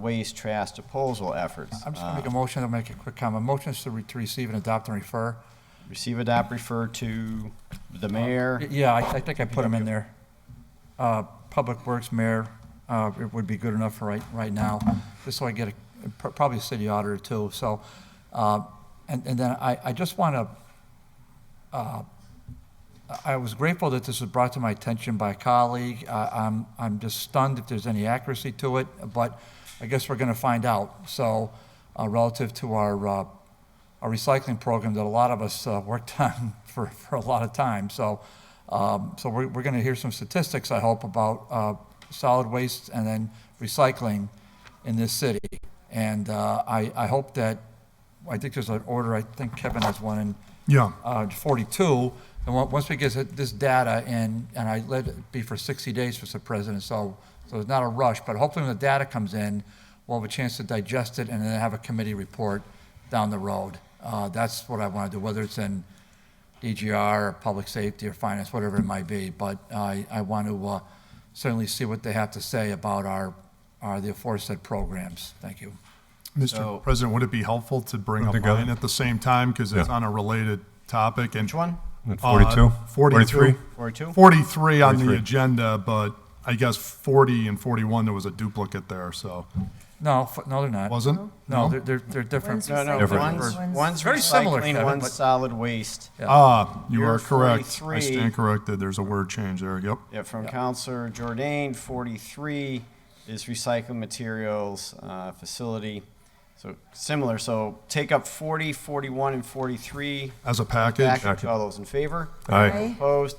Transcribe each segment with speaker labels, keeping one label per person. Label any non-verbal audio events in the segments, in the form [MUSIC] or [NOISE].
Speaker 1: waste trash disposal efforts.
Speaker 2: I'm just gonna make a
Speaker 1: Uh,
Speaker 2: motion, I'll make a quick comment. Motion's to re- to receive and adopt and refer.
Speaker 1: Receive, adopt, refer to the
Speaker 2: Um,
Speaker 1: mayor.
Speaker 2: Yeah, I, I think I put them in there. Uh, Public Works Mayor, uh, it would be good enough for right, right now, just so I get a, pr- probably a city auditor too, so. uh, And, and then I, I just want to I was grateful that this was brought to my attention by a colleague. I- I'm, I'm just stunned if there's any accuracy to it, but I guess we're going to find out. So uh, relative to our, uh, our recycling program that a lot of us uh, worked [LAUGHS] on for, for a lot of time. So, um, so we're, we're going to hear some statistics, I hope, about uh, solid waste and then recycling in this city. And uh, I, I hope that, I think there's an order, I think Kevin has one in
Speaker 3: Yeah.
Speaker 2: uh, 42, and on- once we get this data in, and I let it be for 60 days, Mr. President, so, so it's not a rush, but hopefully when the data comes in, we'll have a chance to digest it and then have a committee report down the road. Uh, That's what I want to do, whether it's in DGR, or Public Safety, or Finance, whatever it might be, but I, I want to uh, certainly see what they have to say about our, our, the aforesaid programs. Thank you.
Speaker 1: So-
Speaker 3: Mr. President, would it be helpful to bring up
Speaker 4: together?
Speaker 3: mine at the same time because it's
Speaker 4: Yeah.
Speaker 3: on a related topic?
Speaker 1: Which one?
Speaker 4: At 42?
Speaker 3: 43.
Speaker 1: 42?
Speaker 3: 43 on the
Speaker 4: 43.
Speaker 3: agenda, but I guess 40 and 41, there was a duplicate there, so,
Speaker 2: No, f- no, they're not.
Speaker 3: wasn't?
Speaker 1: Uh,
Speaker 2: No, they're, they're they're different.
Speaker 5: One's
Speaker 1: No, no,
Speaker 4: Different.
Speaker 1: one's, one's
Speaker 2: Very similar,
Speaker 1: recycling,
Speaker 2: Kevin,
Speaker 1: one's
Speaker 2: but-
Speaker 1: solid waste.
Speaker 3: Ah, you
Speaker 1: You're
Speaker 3: are correct. I
Speaker 1: 43.
Speaker 3: stand corrected. There's a word change there, yep.
Speaker 1: Yeah, from Counselor Jordan, 43 is recycling materials uh, facility. So similar, so take up 40, 41, and 43.
Speaker 3: As a package,
Speaker 1: Package, all those in favor?
Speaker 4: Aye.
Speaker 1: Opposed?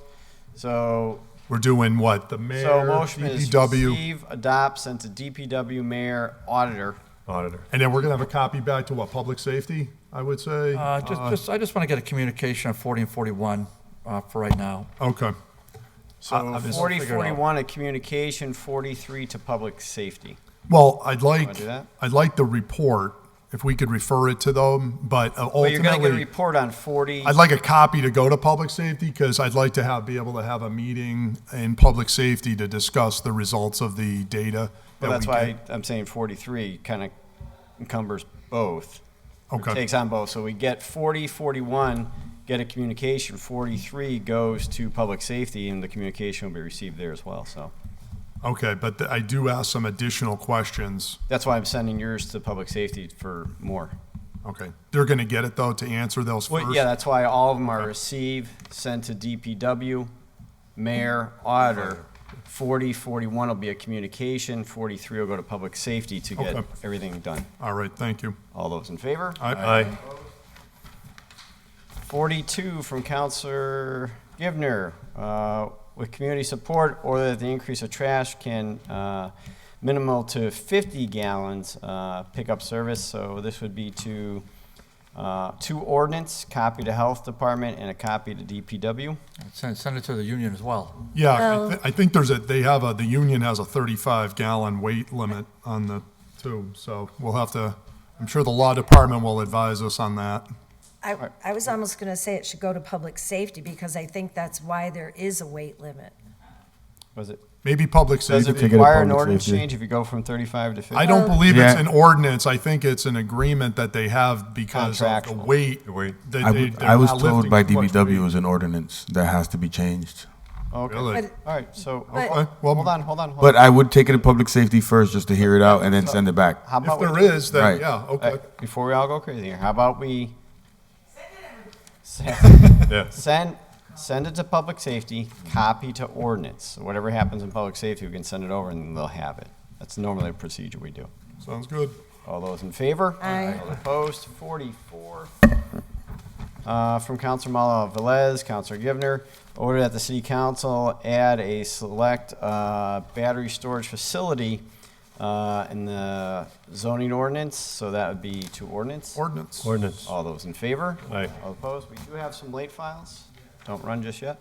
Speaker 1: So,
Speaker 3: we're doing what? The mayor,
Speaker 1: so motion is
Speaker 3: DPW,
Speaker 1: receive, adopt, send to DPW mayor, auditor.
Speaker 4: Auditor.
Speaker 3: and then we're going to have a copy back to what, public safety, I would say?
Speaker 2: Uh, Just, just, I just want to get a communication on 40 and 41 uh, for right now.
Speaker 3: Okay.
Speaker 1: So
Speaker 3: I'm just-
Speaker 1: 40,
Speaker 2: figure it out.
Speaker 1: 41 to communication, 43 to public safety.
Speaker 3: Well, I'd like,
Speaker 1: do that?
Speaker 3: I'd like the report, if we could refer it to them, but uh,
Speaker 1: But you're going to get a
Speaker 3: ultimately,
Speaker 1: report on 40.
Speaker 3: I'd like a copy to go to public safety, because I'd like to have, be able to have a meeting in public safety to discuss the results of the data. that
Speaker 1: Well, that's
Speaker 3: we
Speaker 1: why
Speaker 3: get.
Speaker 1: I'm saying 43 kind of encumbers both. or
Speaker 3: Okay.
Speaker 1: Takes on both. So we get 40, 41, get a communication, 43 goes to public safety, and the communication will be received there as well, so.
Speaker 3: Okay, but th- I do ask some additional questions.
Speaker 1: That's why I'm sending yours to public safety for more.
Speaker 3: Okay, they're gonna get it, though, to answer those first?
Speaker 1: Well, yeah, that's why all of them are receive, sent to DPW, mayor, auditor. 40, 41 will be a communication, 43 will go to public safety to get
Speaker 3: Okay.
Speaker 1: everything done.
Speaker 3: All right, thank you.
Speaker 1: All those in favor?
Speaker 3: I-
Speaker 1: 42 from Counselor Givner, uh, with community support, or that the increase of trash can uh, minimal to 50 gallons uh, pickup service. So this would be to, uh, two ordinance, copy to Health Department and a copy to DPW.
Speaker 2: Send, send it to the union as well.
Speaker 3: Yeah, I
Speaker 5: Well-
Speaker 3: thi- I think there's a, they have a, the union has a 35 gallon weight limit on the tube, so we'll have to, I'm sure the law department will advise us on that.
Speaker 5: I, I was almost gonna say it should go to public safety, because I think that's why there is a weight limit.
Speaker 1: Was it,
Speaker 3: Maybe public
Speaker 1: does it
Speaker 3: safety.
Speaker 1: require an
Speaker 6: public
Speaker 1: ordinance
Speaker 6: safety.
Speaker 1: change if you go from 35 to 50?
Speaker 3: I don't believe it's
Speaker 6: Yeah.
Speaker 3: an ordinance, I think it's an agreement that they have because of the
Speaker 1: Contractual.
Speaker 3: weight.
Speaker 4: The weight.
Speaker 3: that
Speaker 6: I,
Speaker 3: they-
Speaker 6: w-
Speaker 3: they're
Speaker 6: I was
Speaker 3: not
Speaker 6: told
Speaker 3: lifting
Speaker 6: by
Speaker 3: too much
Speaker 6: DBW
Speaker 3: weight.
Speaker 6: is an ordinance that has to be changed.
Speaker 1: Okay, all
Speaker 3: Really?
Speaker 5: But-
Speaker 1: right, so,
Speaker 5: But-
Speaker 1: hold
Speaker 3: well-
Speaker 1: hold on, hold on, hold
Speaker 6: But
Speaker 1: on.
Speaker 6: I would take it to public safety first just to hear it out and then send it back.
Speaker 1: How
Speaker 3: If
Speaker 1: about we
Speaker 3: there is, then,
Speaker 6: Right.
Speaker 3: yeah,
Speaker 1: Uh,
Speaker 3: okay.
Speaker 1: Before we all go crazy here, how about we?
Speaker 3: [LAUGHS]
Speaker 1: Send,
Speaker 4: Yeah.
Speaker 1: send send it to public safety, copy to ordinance. So whatever happens in public safety, we can send it over and they'll have it. That's normally a procedure we do.
Speaker 3: Sounds good.
Speaker 1: All those in favor?
Speaker 5: Aye.
Speaker 1: All opposed? Forty-four. Uh, from Councilor Malo Velez, Councilor Givner, order that the city council add a select, uh, battery storage facility, uh, in the zoning ordinance, so that would be to ordinance.
Speaker 3: Ordinance.
Speaker 4: Ordinance.
Speaker 1: All those in favor?
Speaker 4: Aye.
Speaker 1: All opposed? We do have some late files. Don't run just yet.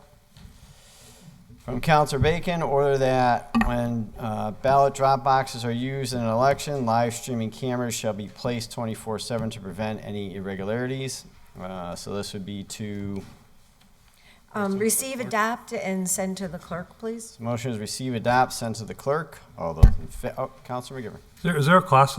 Speaker 1: From Counselor Bacon, order that when uh, ballot drop boxes are used in an election, live streaming cameras shall be placed 24/7 to prevent any irregularities. Uh, So this would be to
Speaker 5: Um, receive, adopt, and send to the clerk, please.
Speaker 1: Motion is receive, adopt, send to the clerk. All those in fa, oh, Counselor McGivern.
Speaker 4: Is there- Is there a cost